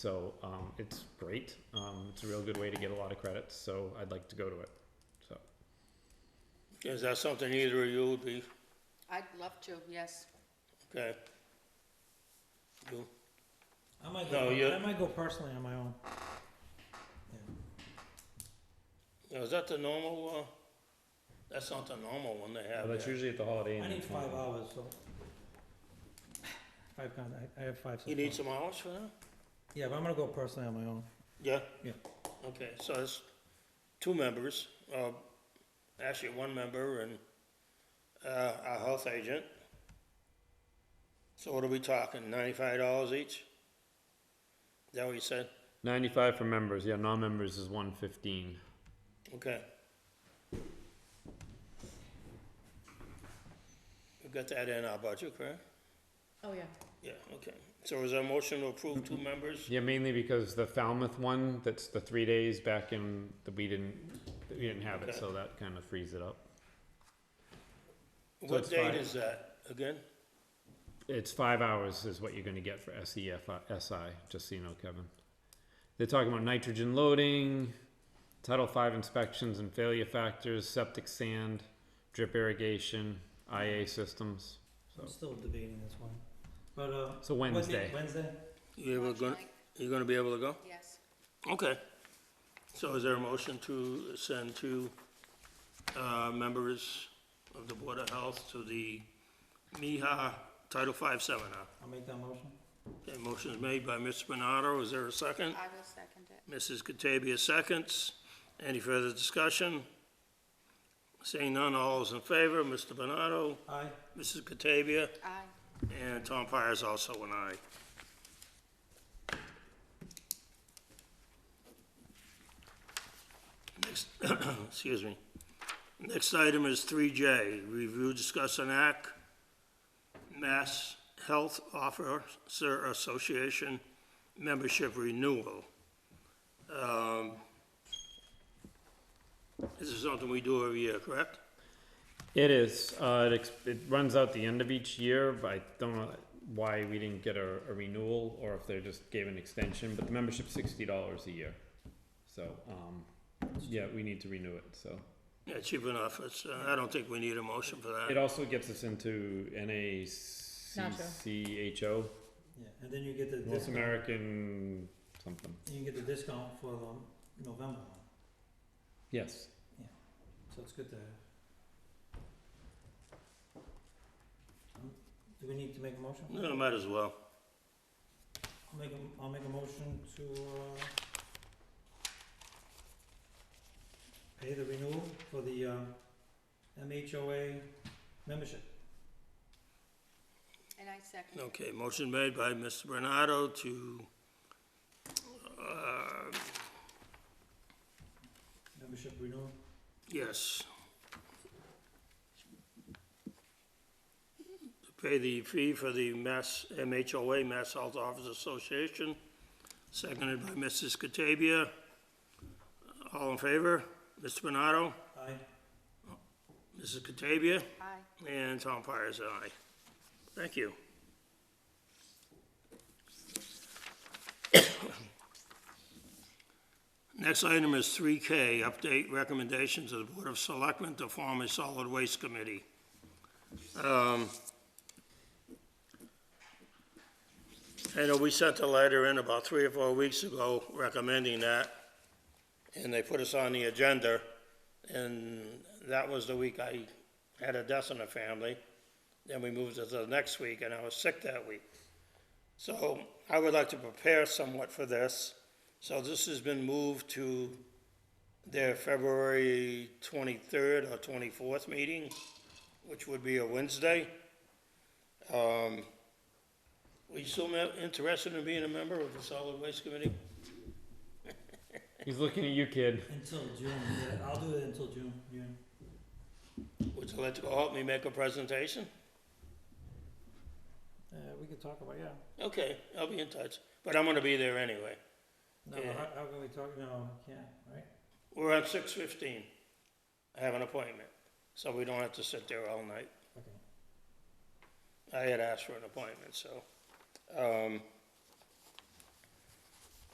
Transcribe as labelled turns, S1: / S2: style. S1: So um, it's great. Um, it's a real good way to get a lot of credits. So I'd like to go to it. So
S2: Is that something either of you would be,
S3: I'd love to, yes.
S2: okay? You,
S4: I might
S2: No,
S4: go,
S2: you-
S4: I might go personally on my own.
S2: now, is that the normal, uh, that's not the normal one they
S1: yeah,
S2: have
S1: that's
S2: there.
S1: usually at the Holiday Inn.
S4: I need
S1: in
S4: five
S1: Taunton.
S4: hours, so. Five con, I, I have five. so
S2: You need
S4: far.
S2: some hours for that?
S4: Yeah, but I'm gonna go personally on my own.
S2: Yeah?
S4: Yeah.
S2: Okay, so it's two members, uh, actually one member and, uh, our health agent. So what are we talking, ninety-five dollars each? Is that what you said?
S1: Ninety-five for members. Yeah, non-members is one fifteen.
S2: Okay. We've got that in our budget, correct?
S3: Oh, yeah.
S2: Yeah, okay. So is there a motion to approve two members?
S1: Yeah, mainly because the Falmouth one, that's the three days back in, that we didn't, we didn't have it, so that kind of frees it up. So
S2: What
S1: it's
S2: date
S1: fine.
S2: is that, again?
S1: It's five hours is what you're gonna get for E SEF, SI, uh, just so you know, Kevin. They're talking about nitrogen loading, Title Five inspections and failure factors, septic sand, drip irrigation, IA systems, so,
S4: I'm still debating this one. But, uh.
S1: so
S4: what day-
S1: Wednesday.
S4: Wednesday?
S2: You ever
S3: March
S2: gonna,
S3: ninth,
S2: you gonna be able to go?
S3: Yes.
S2: Okay. So is there a motion to send two, uh, members of the Board of Health to the MIHA Title V seminar?
S4: I'll make that motion.
S2: Okay, motion is made by Mr. Bernardo. Is there a second?
S3: I will second it.
S2: Mrs. Katabia seconds. Any further discussion? Seeing none, all is in favor. Mr. Bernardo,
S4: Aye.
S2: Mrs. Katabia,
S3: Aye.
S2: and Tom Pires also an aye. Next, excuse me. Next item is three J, review, discuss, and act, Mass Health Officer Association membership renewal. Um, This is something we do every year, correct?
S1: It is, uh, it, ex- it runs out the end of each year, but I don't know why we didn't get a, a renewal, or if they just gave an extension, but the membership's sixty dollars a year. So, um, yeah, we need to renew it, so.
S2: Yeah, cheap enough. It's, uh, I don't think we need a motion for that.
S1: It also gets us into NACCHO,
S4: Yeah, and then you get the
S1: North
S4: discount,
S1: American something.
S4: you get the discount for the November one,
S1: Yes.
S4: so it's good to. Um, Do we need to make a motion?
S2: Hmm? No, might as well.
S4: I'll make a, I'll make a motion to, uh, pay the renewal for the, uh, MHOA membership.
S3: And I second it.
S2: Okay, motion made by Mr. Bernardo to, uh,
S4: Membership renewal,
S2: yes. To pay the fee for the Mass, MHOA, Mass Health Officers Association, seconded by Mrs. Katabia. All in favor? Mr. Bernardo,
S4: aye.
S2: Mrs. Katabia,
S3: Aye.
S2: and Tom Pires, aye. Thank you. Next item is three K, update recommendations of the Board of Selectmen to form a solid waste committee. Um, I know we sent a letter in about three or four weeks ago recommending that, and they put us on the agenda, and that was the week I had a death in the family. Then we moved it to the next week, and I was sick that week. So I would like to prepare somewhat for this. So this has been moved to their February 23rd or 24th meeting, which would be a Wednesday. Um, Were you still me- interested in being a member of the Solid Waste Committee?
S1: He's looking at you, kid.
S4: Until June, yeah, I'll do it until June, June.
S2: Would you like to help me make a presentation?
S4: Uh, we could talk about, yeah.
S2: Okay, I'll be in touch, but I'm gonna be there anyway.
S4: No, but how, how can we talk, no, we can't, right?
S2: We're at six fifteen. I have an appointment, so we don't have to sit there all night.
S4: Okay.
S2: I had asked for an appointment, so, um,